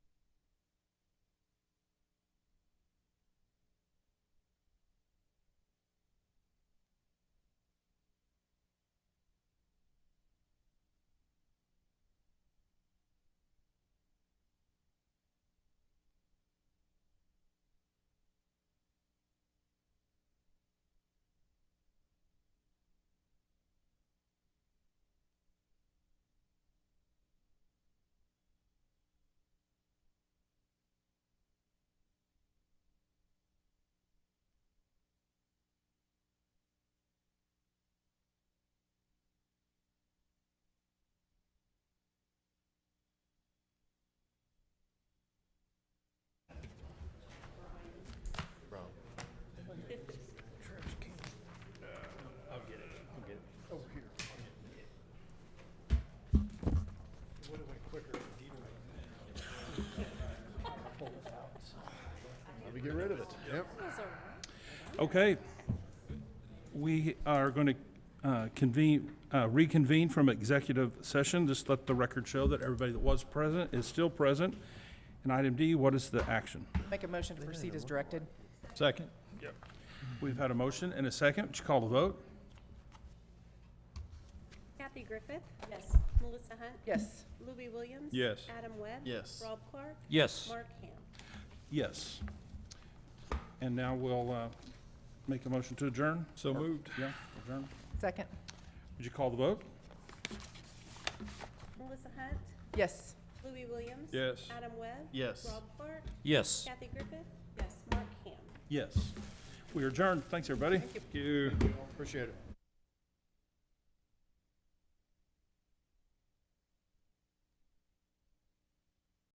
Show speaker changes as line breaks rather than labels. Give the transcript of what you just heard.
to get rid of it. Yep.
Okay. We are going to convene, uh, reconvene from executive session. Just let the record show that everybody that was present is still present. And item D, what is the action?
Make a motion to proceed as directed.
Second?
We've had a motion and a second. Would you call the vote?
Kathy Griffith. Yes. Melissa Hunt.
Yes.
Louis Williams.
Yes.
Adam Webb.
Yes.
Rob Clark.
Yes.
Mark Ham.
Yes. And now we'll uh, make a motion to adjourn.
So moved.
Yeah, adjourn.
Second?
Would you call the vote?
Melissa Hunt.
Yes.
Louis Williams.
Yes.
Adam Webb.
Yes.
Rob Clark.
Yes.
Kathy Griffith. Yes. Mark Ham.
Yes. We are adjourned. Thanks, everybody.
Thank you. Appreciate it.